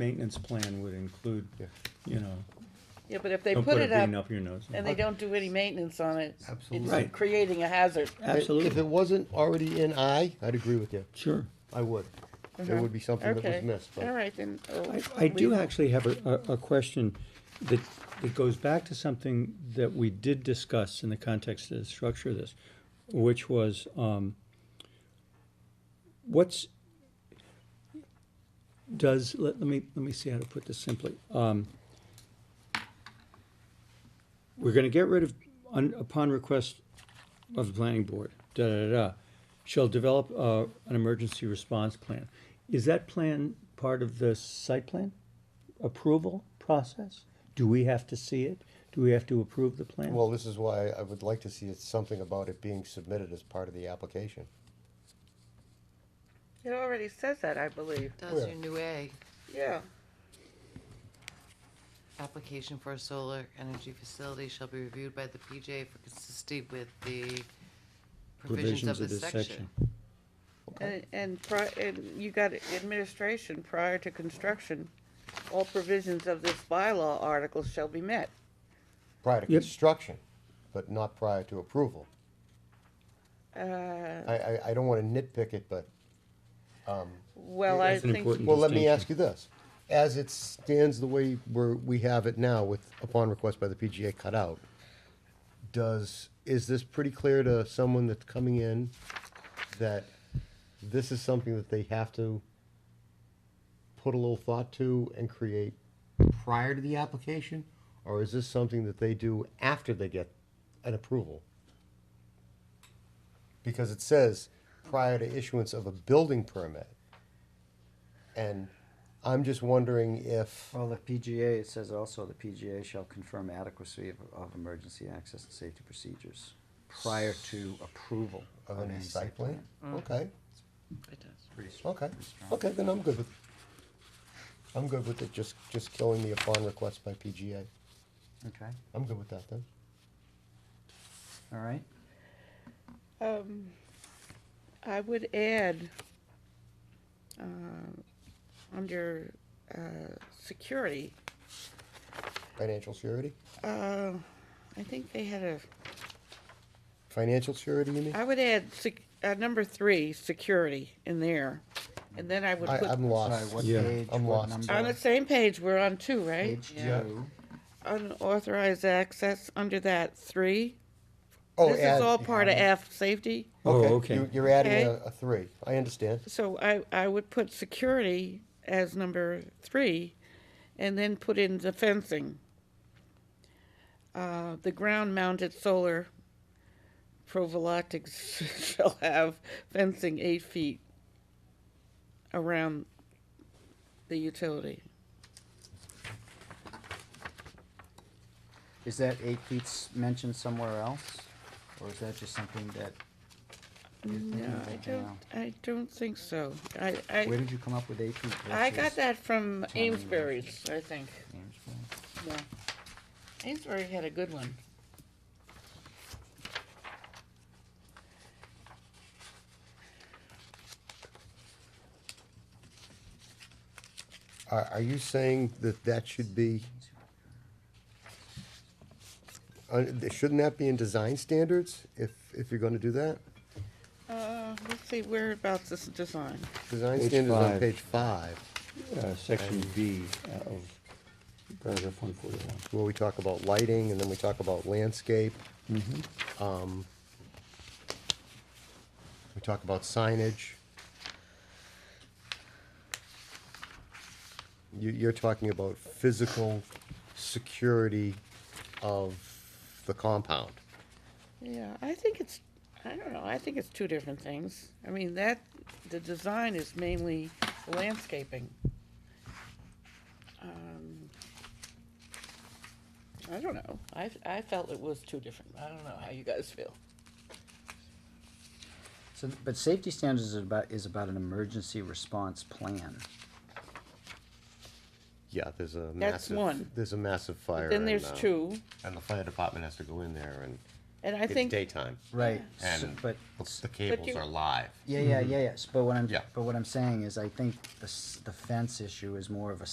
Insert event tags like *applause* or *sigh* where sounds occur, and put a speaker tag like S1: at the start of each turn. S1: maintenance plan would include,
S2: Yeah.
S1: you know,
S3: Yeah, but if they
S1: don't
S3: put it
S1: green
S3: up
S1: up your nose.
S3: and they don't do any maintenance on it,
S2: Absolutely.
S1: Right.
S3: it's creating a hazard.
S2: If it
S1: Absolutely,
S2: wasn't already in I, I'd agree with you.
S1: sure.
S2: I would. There
S3: Uh-huh.
S2: would be something that
S3: Okay,
S2: was missed,
S3: all
S2: but
S3: right, then. oh,
S1: I, I do
S3: we-
S1: actually have a, a, a question that, that goes back to something that we did discuss in the context of the structure of this, which was, um, what's, does, let, let me, let me see how to put this simply. Um, we're gonna get rid of, on, upon request of the planning board, da, da, da, da, shall develop, uh, an emergency response plan. Is that plan part of the site plan approval process? Do we have to see it? Do we have to approve the plan?
S2: well, this is why I would like to see it something about it being submitted as part of the application.
S3: It already says that, I believe.
S4: Does
S2: Yeah.
S4: your new A,
S3: Yeah.
S4: application for a solar energy facility shall be reviewed by the PJ for consistency with the provisions of this section.
S3: And, and pri- and you got administration prior to construction, all provisions of this bylaw article shall be met.
S2: Prior to
S1: Yep.
S2: construction, but not prior to approval.
S3: Uh,
S2: I, I, I don't wanna nitpick it, but,
S3: well, I
S1: That's an
S3: think,
S1: important-
S2: well, let me
S1: Distinction.
S2: ask you this. As it stands the way we're, we have it now with upon request by the PGA cut out, does, is this pretty clear to someone that's coming in that this is something that they have to put a little thought to and create prior to the application? Or is this something that they do after they get an approval? Because it says prior to issuance of a building permit. And I'm just wondering if,
S5: Well, the PGA, it says also, the PGA shall confirm adequacy of, of emergency access and safety procedures prior to approval
S2: of
S5: of
S2: any uh, site plan? Mm. Okay,
S4: It does.
S2: okay, okay, then I'm good with, I'm good with it, just, just killing the upon request by PGA.
S5: Okay,
S2: I'm good with that then.
S5: all right.
S3: um, I would add, um, under, uh, security,
S2: Financial surety?
S3: uh, I think they had a,
S2: Financial surety, you mean?
S3: I would add sec- uh, number three, security in there. And then I would
S2: I,
S3: put,
S2: I'm
S5: Sorry,
S2: lost.
S5: what
S1: Yeah.
S5: page,
S2: I'm
S5: what
S2: lost.
S5: number?
S3: on the same page, we're on two, Oh, right?
S5: Page
S4: Yeah.
S5: two.
S2: Mm-hmm.
S3: Unauthorized access, under that, three.
S2: Oh,
S3: This
S2: add-
S3: is all part of F, safety.
S1: Oh,
S2: you-
S1: okay.
S2: You're adding a,
S3: Okay.
S2: a three, I understand.
S3: So I, I would put security as number three, and then put in the fencing. Uh, the ground-mounted solar provolatics *laughs* shall have fencing eight feet around the utility.
S5: Is that eight feet s- mentioned somewhere else, or is that just something that? you're thinking
S3: No,
S5: of
S3: I
S5: right
S3: don't,
S5: now?
S3: I don't think so. I,
S5: Where
S3: I,
S5: did you come up with eight feet?
S3: I got
S5: versus
S3: that from
S5: Town.
S3: Amesbury's, I think.
S5: Amesbury?
S3: Yeah. Amesbury had a good one.
S2: Are, are you saying that that should be, uh, shouldn't that be in design standards if, if you're gonna do that?
S3: Uh, let's see, whereabouts is the design?
S2: Design
S1: Page
S2: standards on
S1: five.
S2: page five,
S1: Uh, Section B uh, of paragraph one forty-one.
S2: where we talk about lighting, and then we talk about landscape. Um, We talk about signage. You, you're talking about physical security of the compound.
S3: Yeah, I think it's, I don't know, I think it's two different things. I mean, that, the design is mainly landscaping. Um, I don't know, I, I felt it was two different, I don't know how you guys feel.
S5: So, but safety standards is about, is about an emergency response plan.
S2: Yeah, there's a massive.
S3: That's one.
S2: There's a massive fire.
S3: But Then
S2: and,
S3: there's
S2: uh,
S3: two,
S2: And the fire department has to go in there and
S3: and I
S2: it's
S3: think,
S2: daytime.
S5: Right. So-
S2: And
S5: But
S2: the cables
S3: you-
S2: are live.
S5: Yeah, yeah, yeah, yeah. S- But what I'm,
S2: Yeah.
S5: but what I'm saying is, I think the, s- the fence issue is more of a